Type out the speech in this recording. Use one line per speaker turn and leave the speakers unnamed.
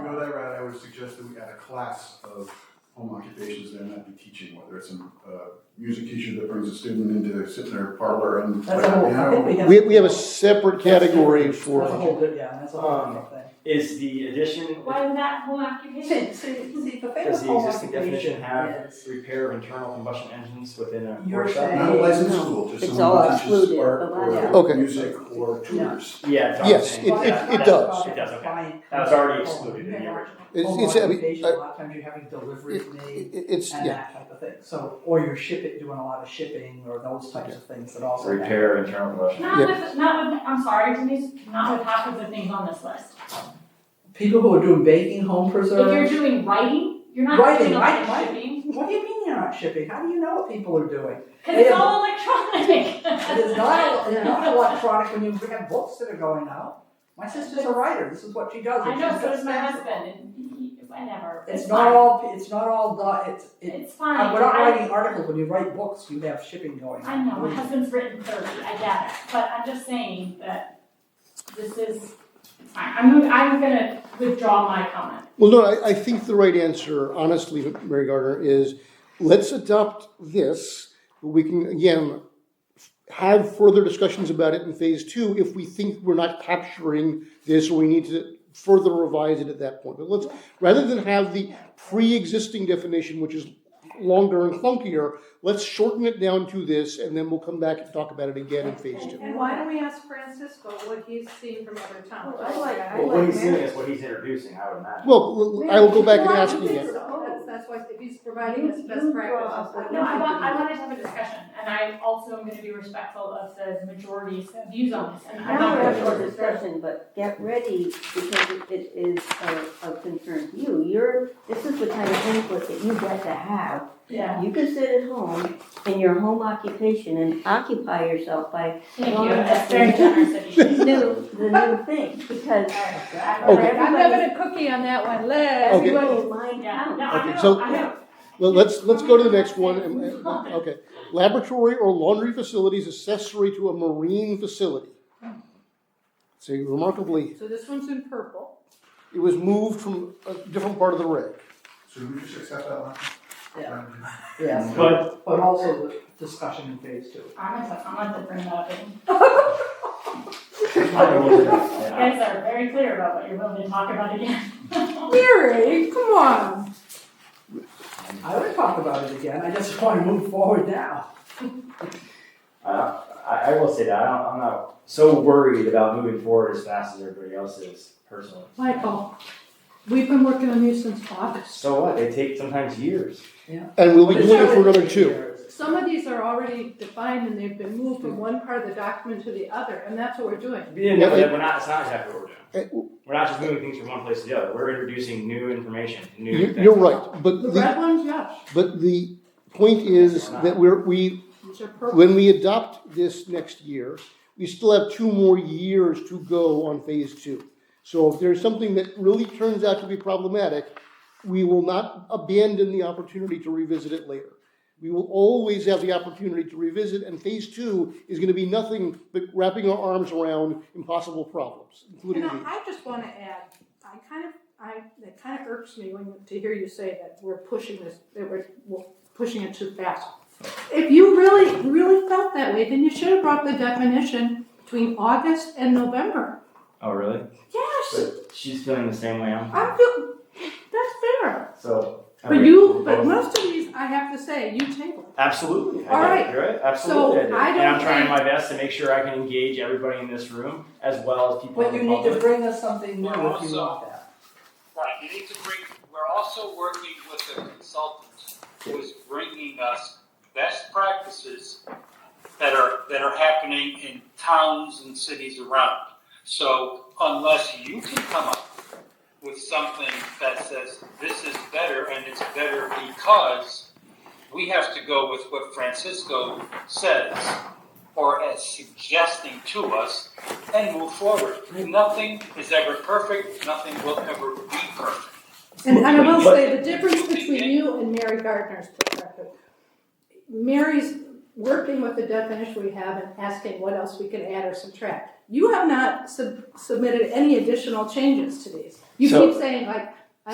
would suggest that we add a class of home occupations that might be teaching, whether it's a uh, music teacher that brings a student into sit in their parlor and play
That's a whole, I think we
piano.
have.
We, we have a separate category
That's a
for,
whole good, yeah, that's a
Um,
whole good thing.
Is the addition,
Why not home occupation? See,
The thing
does
with
the
home
existing definition
occupation
have
is-
repair of internal combustion engines within a
You're
workshop?
saying-
Not a licensed
No.
school, just
It's
someone
all
who teaches
included,
art
but
not-
or
Okay.
music or tutors.
Yeah. that's what I'm
Yes,
saying.
it-
Well,
it-
Yeah,
that's
it
not
does.
about
It does, okay.
compliant
That was already
home.
excluded in the
Yeah.
original.
it's,
Home
it's, I mean,
occupation,
I-
a lot of times you're having deliveries made
it- it's,
and
yeah,
that type of thing. So, or you're shipping, doing a lot of shipping or those types of things that also.
Repair of internal combustion.
Not with, not with, I'm sorry, Denise, not with half of the things on this list.
People who are doing baking, home
If you're
preserves.
doing writing, you're not
Writing,
doing a lot of
right, right.
shipping.
What do you mean you're not shipping? How do you know what people are doing?
Cause it's
Yeah.
all electronic.
It's not, it's not electronic when you have books that are going out. My sister's a writer. This is what she does.
I
and
know,
she's
so
got
does my
stamps.
husband, and he, whatever,
It's
it's
not
fine,
all, it's not all, do- it's, it's
it's fine.
Uh, we're not
I-
writing articles, when you write books, you have shipping going.
I know, my husband's written thirty, I get it, but I'm just saying that this is, I, I'm, I'm gonna withdraw my comment.
Well, no, I, I think the right answer, honestly, Mary Gardner, is let's adopt this. We can, again, have further discussions about it in phase two if we think we're not capturing this or we need to further revise it at that point. But let's, rather than have the pre-existing definition, which is longer and clunkier, let's shorten it down to this and then we'll come back and talk about it again in phase two.
And why don't we ask Francisco what he's seen from other towns?
Well, I like- I
Well, what he's doing is what he's introducing, I would imagine.
Well, I will go back and ask you again.
Oh, That's, that's why he's providing us best practices.
No, I want, I wanted to have a discussion, and I also am gonna be respectful of the majority's views on this, and I'm
Now
not
we're
gonna.
having a discussion, but get ready because it is of, of concern to you. You're, this is the kind of input that you get to have.
Yeah,
You can sit at home in your home occupation and occupy yourself by
thank you, that's very generous of you.
new, the new thing because for
Okay.
I'm
everybody,
having a cookie on that one, let
Okay.
everybody's mind
Yeah,
counts.
no, I
Okay,
know,
so-
I know.
Well, let's, let's go to the next one. And- and- uh, Okay. Laboratory or laundry facilities accessory to a marine facility. So remarkably,
So this one's in purple.
it was moved from a different part of the reg.
So we just accept that one?
Yeah.
Yes.
Yes,
But
but also the discussion in phase two.
I'm gonna, I'm gonna have to bring that up, and
I will-
you
yeah.
guys are very clear about what you're willing to talk about again.
Mary, come on.
I would talk about it again, I just wanna move forward now.
Uh, I, I will say that, I don't, I'm not so worried about moving forward as fast as everybody else is personally.
Michael, we've been working on these since August.
So what, they take sometimes years.
And we'll be doing it for another two.
Some of these are already defined and they've been moved from one part of the document to the other, and that's what we're doing.
Yeah, no, that we're not, it's not exactly what we're doing.
Uh,
We're not just moving things from one place to the other, we're introducing new information, new
you-
things.
You're right, but
The
the,
red ones, yes,
but the point is that we're, we,
these are purple.
when we adopt this next year, we still have two more years to go on phase two. So if there's something that really turns out to be problematic, we will not abandon the opportunity to revisit it later. We will always have the opportunity to revisit, and phase two is gonna be nothing but wrapping our arms around impossible problems, including
And
these.
I, I just wanna add, I kind of, I, it kind of irks me when, to hear you say that we're pushing this, that we're, we're pushing it too fast. If you really, really felt that way, then you should have brought the definition between August and November.
Oh, really?
Yes,
But she's feeling the same way I'm,
I feel, that's fair.
so.
But you, but most of these, I have to say, you tabled.
Absolutely. I
All
did.
right.
You're right. Absolutely.
So,
did.
I
and I'm
don't
trying
think-
my best to make sure I can engage everybody in this room as well as people
But
in
you
the
need to
public.
bring us something new if you want that.
Right, you need to bring, we're also working with a consultant who is bringing us best practices that are, that are happening in towns and cities around. So unless you can come up with something that says, this is better and it's better because we have to go with what Francisco says or as suggesting to us and move forward. Nothing is ever perfect, nothing will ever be perfect.
And, and I will
But-
say, the difference between you and Mary Gardner's perspective, Mary's working with the definition we have and asking what else we can add or subtract. You have not sub- submitted any additional changes to these. You
So-
keep saying like,